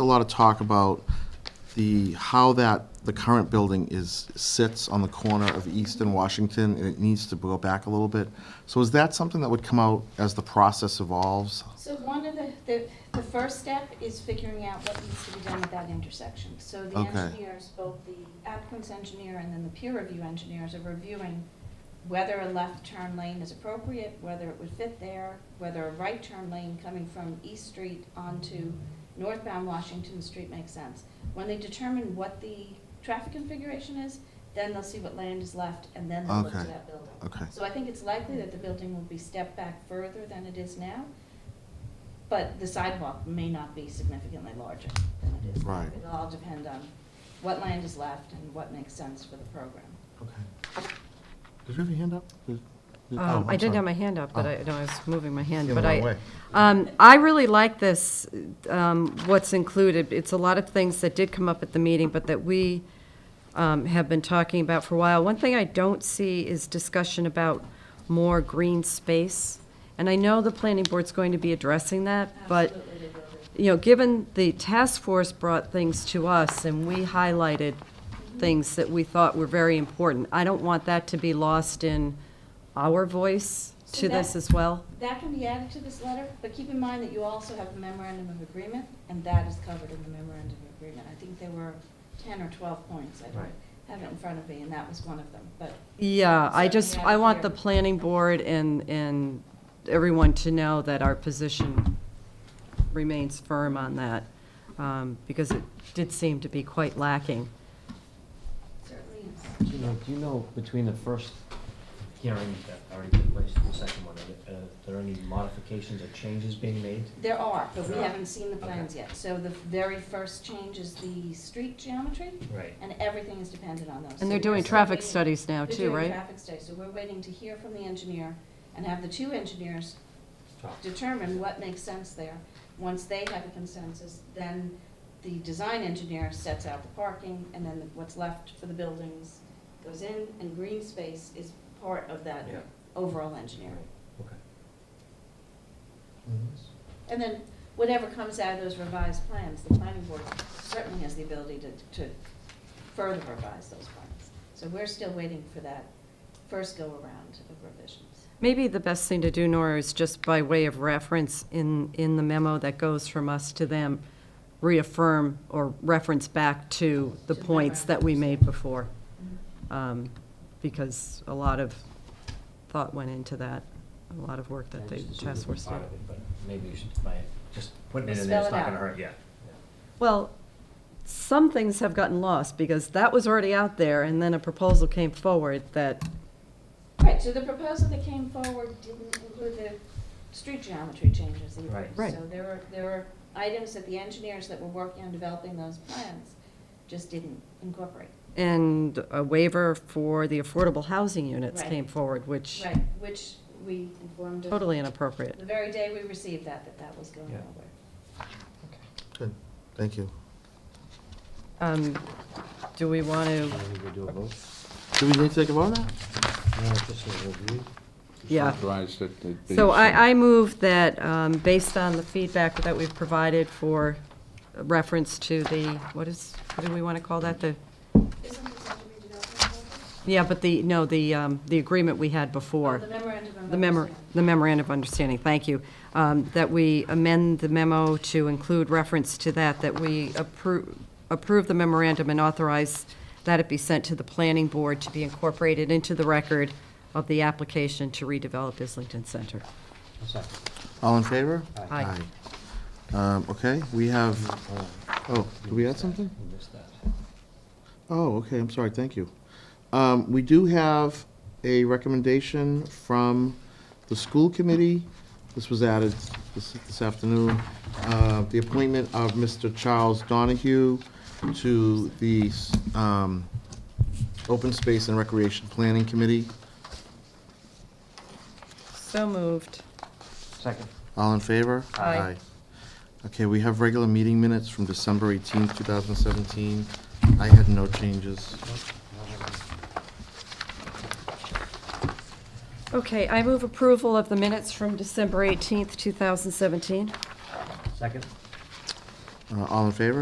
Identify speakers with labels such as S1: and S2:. S1: a lot of talk about the, how that, the current building is, sits on the corner of East and Washington, and it needs to go back a little bit. So is that something that would come out as the process evolves?
S2: So one of the, the, the first step is figuring out what needs to be done at that intersection. So the
S1: Okay.
S2: engineers, both the applicant's engineer and then the peer review engineers are reviewing whether a left turn lane is appropriate, whether it would fit there, whether a right turn lane coming from East Street onto northbound Washington Street makes sense. When they determine what the traffic configuration is, then they'll see what land is left and then they'll look to
S1: Okay.
S2: that building.
S1: Okay.
S2: So I think it's likely that the building will be stepped back further than it is now, but the sidewalk may not be significantly larger than it is. now.
S1: Right.
S2: It'll all depend on what land is left and what makes sense for the program.
S1: Okay. Did you have your hand up? Did- did- oh,
S3: Um,
S1: I'm
S3: I did
S1: sorry.
S3: have my hand up, but
S1: Oh.
S3: I, no, I was moving my hand,
S1: In
S3: but
S1: the
S3: I.
S1: wrong way.
S3: Um, I really like this, um, what's included. It's a lot of things that did come up at the meeting, but that we, um, have been talking about for a while. One thing I don't see is discussion about more green space. And I know the planning board's going to be addressing that, but
S2: Absolutely, they will be.
S3: you know, given the task force brought things to us and we highlighted things that we thought were very important, I don't want that to be lost in our voice
S2: So
S3: to this
S2: that-
S3: as well.
S2: That can be added to this letter, but keep in mind that you also have a memorandum of agreement, and that is covered in the memorandum of agreement. I think there were ten or twelve points, I don't
S3: Right.
S2: have it in front of me, and that was one of them, but
S3: Yeah, I just,
S2: Certainly
S3: I
S2: out
S3: want
S2: here.
S3: the planning board and, and everyone to know that our position remains firm on that, um, because it did seem to be quite lacking.
S2: certainly is.
S4: Do you know, do you know between the first hearing that already took place and the second one, are there- uh, there any modifications or changes being made?
S2: There are, but we
S4: There are.
S2: haven't seen the plans yet. So the very first change is the street geometry,
S4: Right.
S2: and everything is dependent on those.
S3: And they're
S2: So
S3: doing
S2: we're still
S3: traffic
S2: waiting-
S3: studies now
S2: They're
S3: too,
S2: doing
S3: right?
S2: traffic studies, so we're waiting to hear from the engineer and have the two engineers determine what makes sense there. Once they have a consensus, then the design engineer sets out the parking, and then what's left for the buildings goes in, and green space is part of that
S4: Yeah.
S2: overall engineering.
S4: Okay.
S2: And then whatever comes out of those revised plans, the planning board certainly has the ability to, to further revise those plans. So we're still waiting for that first go-around of revisions.
S3: Maybe the best thing to do, Nora, is just by way of reference in, in the memo that goes from us to them, reaffirm or reference back to the
S2: To the
S3: points that we made before.
S2: Mm-hmm.
S3: um, Because a lot of thought went into that, a lot of work that the
S4: Just
S3: task force did.
S4: part of it, But maybe you should, by just putting it in
S2: Spell
S4: there,
S2: it
S4: it's not gonna
S2: out.
S4: hurt, yeah.
S3: Well, some things have gotten lost because that was already out there and then a proposal came forward that,
S2: Right, so the proposal that came forward didn't include the street geometry changes either.
S4: Right.
S3: Right.
S2: So there were, there were items that the engineers that were working on developing those plans just didn't incorporate.
S3: and a waiver for the affordable housing units
S2: Right.
S3: came forward, which
S2: Right, which we informed of
S3: totally inappropriate.
S2: the very day we received that, that that was going
S4: Yeah.
S2: nowhere.
S1: Good, thank you.
S3: Um, Do we want to,
S4: I think we do a vote.
S1: Do we need to take a vote now?
S4: No, just a review.
S3: yeah.
S5: Authorized that it be
S3: So
S5: sent.
S3: I, I move that, um, based on the feedback that we've provided for reference to the, what is, what do we want to call that? The,
S2: Isn't this under redevelopment? though?
S3: yeah, but the, no, the, um, the agreement we had before.
S2: Oh, The memorandum of
S3: The memo,
S2: understanding.
S3: the memorandum of understanding, thank you, um, that we amend the memo to include reference to that, that we approve, approve the memorandum and authorize that it be sent to the planning board to be incorporated into the record of the application to redevelop Islington Center.
S4: A second.
S1: All in favor?
S3: Aye.
S1: Aye. Um, okay, we
S4: Uh,
S1: have, oh, did we add something?
S4: You missed that.
S1: Oh, okay, I'm sorry, thank you. Um, we do have a recommendation from the school committee. This was added this, this afternoon. Uh, the appointment of Mr. Charles Donahue to the, um, Open Space and Recreation Planning Committee.
S3: So moved.
S4: Second.
S1: All in favor?
S3: Aye.
S1: Okay, we have regular meeting minutes from December 18th, 2017. I had no changes.
S3: Okay, I move approval of the minutes from December 18th, 2017.
S4: Second.
S1: Uh, All in favor?